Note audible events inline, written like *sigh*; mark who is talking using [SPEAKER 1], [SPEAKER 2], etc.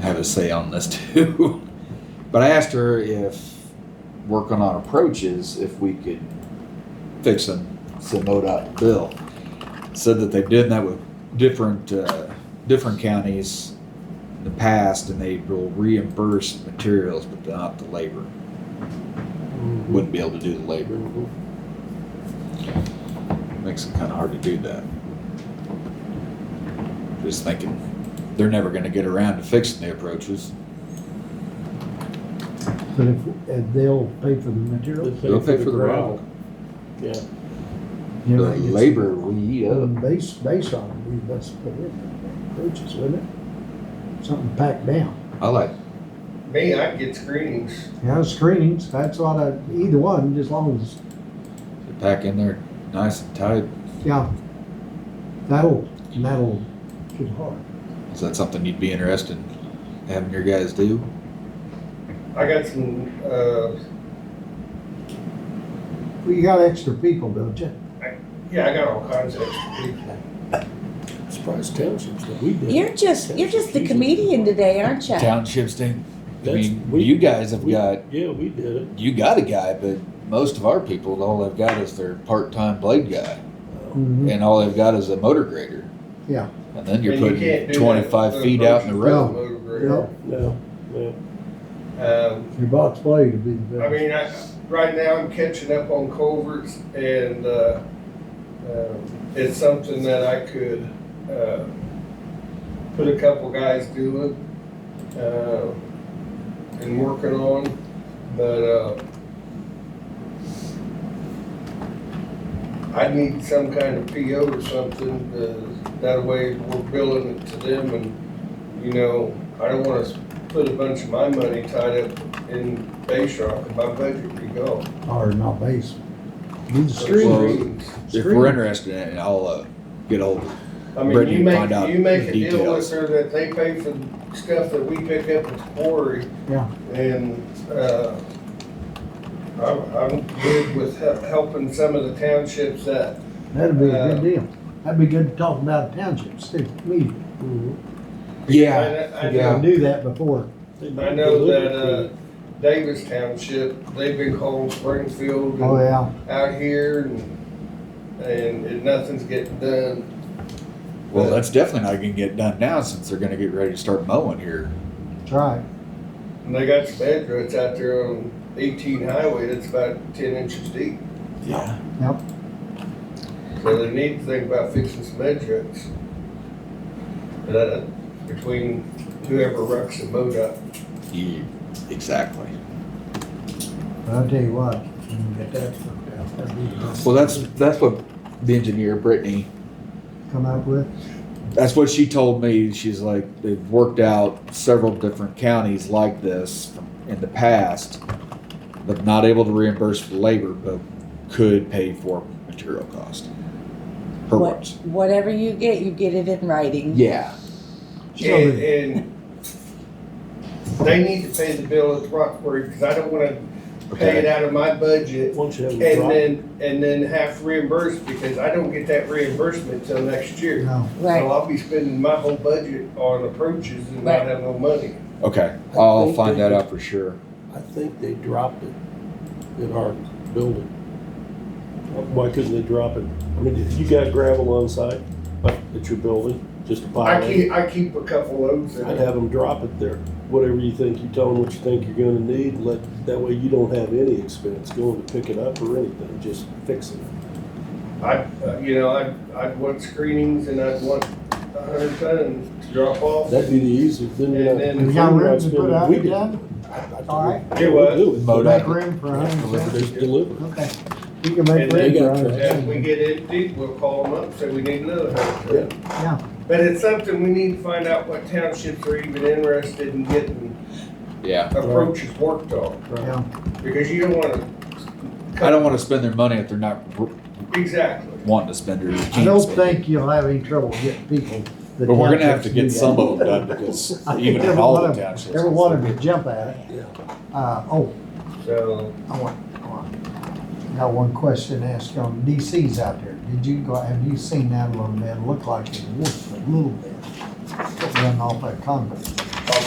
[SPEAKER 1] have a say on this *laughs* too. but I asked her if working on approaches, if we could fix them, send MoDOT a bill. Said that they've done that with different, uh, different counties in the past and they will reimburse materials, but not the labor. Wouldn't be able to do the labor. Makes it kind of hard to do that. Just thinking, they're never gonna get around to fixing the approaches.
[SPEAKER 2] But if, and they'll pay for the materials,
[SPEAKER 1] They'll pay for the rock.
[SPEAKER 3] Yeah,
[SPEAKER 2] you
[SPEAKER 1] The
[SPEAKER 2] know, that gets-
[SPEAKER 1] labor we uh, eat up.
[SPEAKER 2] Um, Base, base on it, we must put in approaches, wouldn't it? Something packed down.
[SPEAKER 1] I like
[SPEAKER 4] Me, I'd get screenings.
[SPEAKER 2] Yeah, screenings, that's what I, either one, as long as,
[SPEAKER 1] to pack in there nice and tight.
[SPEAKER 2] yeah. That'll, that'll get hard.
[SPEAKER 1] Is that something you'd be interested in having your guys do?
[SPEAKER 4] I got some, uh,
[SPEAKER 2] Well, you got extra people, don't you?
[SPEAKER 4] yeah, I got all kinds of people.
[SPEAKER 3] surprise townships that we did.
[SPEAKER 5] You're just you're just the comedian today, aren't you?
[SPEAKER 1] Townships do. I
[SPEAKER 3] That's-
[SPEAKER 1] mean,
[SPEAKER 3] we-
[SPEAKER 1] you guys have
[SPEAKER 3] We-
[SPEAKER 1] got
[SPEAKER 3] Yeah, we did it.
[SPEAKER 1] you got a guy, but most of our people, all they've got is their part-time blade guy, and all they've got is a motor grader.
[SPEAKER 2] Yeah.
[SPEAKER 1] And then you're
[SPEAKER 4] And you
[SPEAKER 1] putting
[SPEAKER 4] can't do that
[SPEAKER 1] twenty-five
[SPEAKER 4] with
[SPEAKER 1] feet out in the road.
[SPEAKER 4] motor grader.
[SPEAKER 2] No,
[SPEAKER 3] No, no.
[SPEAKER 4] Um,
[SPEAKER 2] your box blade would be the
[SPEAKER 4] I
[SPEAKER 2] best.
[SPEAKER 4] mean, I, right now I'm catching up on culverts and, uh, um, it's something that I could, uh, put a couple guys doing, uh, and working on, but, uh, I need some kind of PO or something, uh, that way we're billing it to them and, you know, I don't wanna put a bunch of my money tied up in base rock, and my budget be gone.
[SPEAKER 2] Or not base. Do the
[SPEAKER 1] Well,
[SPEAKER 2] screening.
[SPEAKER 1] If we're interested in it, I'll uh, get hold. of
[SPEAKER 4] I mean,
[SPEAKER 1] Brittany,
[SPEAKER 4] you make,
[SPEAKER 1] find out
[SPEAKER 4] you make a
[SPEAKER 1] the
[SPEAKER 4] deal with
[SPEAKER 1] details.
[SPEAKER 4] her that they pay for the stuff that we pick up at the quarry.
[SPEAKER 2] Yeah.
[SPEAKER 4] And, uh, I'm, I'm good with he- helping some of the townships that,
[SPEAKER 2] That'd be a good
[SPEAKER 4] Uh,
[SPEAKER 2] deal. That'd be good to talk about townships too. We,
[SPEAKER 3] Mm-hmm.
[SPEAKER 1] Yeah,
[SPEAKER 4] I- I-
[SPEAKER 1] yeah.
[SPEAKER 2] knew that before.
[SPEAKER 4] I know that, uh, Davis Township, they've been calling Springfield
[SPEAKER 2] Oh,
[SPEAKER 4] and
[SPEAKER 2] yeah.
[SPEAKER 4] out here and, and and nothing's getting done.
[SPEAKER 1] Well, that's definitely not gonna get done now since they're gonna get ready to start mowing here.
[SPEAKER 2] That's right.
[SPEAKER 4] And they got some edgerets out there on eighteen highway that's about ten inches deep.
[SPEAKER 1] Yeah.
[SPEAKER 4] So they need to think about fixing some edgerets. Uh, between whoever rucks the boat up.
[SPEAKER 1] You, exactly.
[SPEAKER 2] But I'll tell you what, when you get that worked out, that'd be
[SPEAKER 4] uh,
[SPEAKER 2] the best.
[SPEAKER 1] Well, that's that's what the engineer Brittany.
[SPEAKER 2] Come up with,
[SPEAKER 1] That's what she told me. She's like they've worked out several different counties like this in the past, but not able to reimburse for labor, but could pay for material cost. Her
[SPEAKER 5] What,
[SPEAKER 1] words.
[SPEAKER 5] whatever you get, you get it in writing.
[SPEAKER 1] Yeah.
[SPEAKER 4] And, and they need to pay the bill at Rockford, cause I don't wanna pay it out of my budget
[SPEAKER 3] Once you have
[SPEAKER 4] and
[SPEAKER 3] a drop,
[SPEAKER 4] then, and then have to reimburse, because I don't get that reimbursement till next
[SPEAKER 2] you
[SPEAKER 4] year.
[SPEAKER 2] know,
[SPEAKER 4] So
[SPEAKER 5] Right.
[SPEAKER 4] I'll be spending my whole budget on approaches and not
[SPEAKER 5] Right.
[SPEAKER 4] have no money.
[SPEAKER 1] Okay.
[SPEAKER 3] I
[SPEAKER 1] I'll
[SPEAKER 3] think
[SPEAKER 1] find
[SPEAKER 3] they
[SPEAKER 1] that
[SPEAKER 3] could-
[SPEAKER 1] out for sure.
[SPEAKER 3] I think they dropped it in our building. Why couldn't they drop it? I mean, if you got gravel on site, like at your building, just a
[SPEAKER 4] I
[SPEAKER 3] pile, it,
[SPEAKER 4] keep, I keep a couple loads in
[SPEAKER 3] I'd
[SPEAKER 4] it.
[SPEAKER 3] have them drop it there. Whatever you think, you tell them what you think you're gonna need, let, that way you don't have any expense going to pick it up or anything, just fix it.
[SPEAKER 4] I, uh, you know, I'd, I'd want screenings and I'd want a hundred ton to drop off.
[SPEAKER 3] That'd be the easiest, then you're not.
[SPEAKER 4] And
[SPEAKER 2] then- We got room to put out
[SPEAKER 3] We did.
[SPEAKER 2] again? All right.
[SPEAKER 3] Yeah, we'll do it, but
[SPEAKER 2] make room for a hundred and
[SPEAKER 3] Deliver,
[SPEAKER 2] ten.
[SPEAKER 3] just deliver.
[SPEAKER 2] Okay. You can make
[SPEAKER 4] And they
[SPEAKER 2] room for a
[SPEAKER 3] got
[SPEAKER 2] hundred
[SPEAKER 4] If
[SPEAKER 2] and
[SPEAKER 4] we
[SPEAKER 2] ten.
[SPEAKER 4] get empty, we'll call them up, say we need another hundred ton.
[SPEAKER 2] Yeah,
[SPEAKER 4] But it's something we need to find out what townships are even interested in getting
[SPEAKER 1] Yeah.
[SPEAKER 4] approaches worked on,
[SPEAKER 2] yeah.
[SPEAKER 4] because you don't wanna.
[SPEAKER 1] I don't want to spend their money if they're not r-
[SPEAKER 4] Exactly.
[SPEAKER 1] wanting to spend it.
[SPEAKER 2] I don't think you'll have any trouble getting people. the
[SPEAKER 1] But we're gonna have
[SPEAKER 2] townships
[SPEAKER 1] to
[SPEAKER 2] do
[SPEAKER 1] get
[SPEAKER 2] that.
[SPEAKER 1] some of them done because
[SPEAKER 2] *laughs* I think
[SPEAKER 1] even if
[SPEAKER 2] every
[SPEAKER 1] all
[SPEAKER 2] one
[SPEAKER 1] the
[SPEAKER 2] of-
[SPEAKER 1] townships.
[SPEAKER 2] Every one of them jump at it. Uh, oh,
[SPEAKER 4] So,
[SPEAKER 2] I want, I want, I got one question to ask on DC's out there. Did you go, have you seen that little man look like a wolf a little bit? Running off that concrete.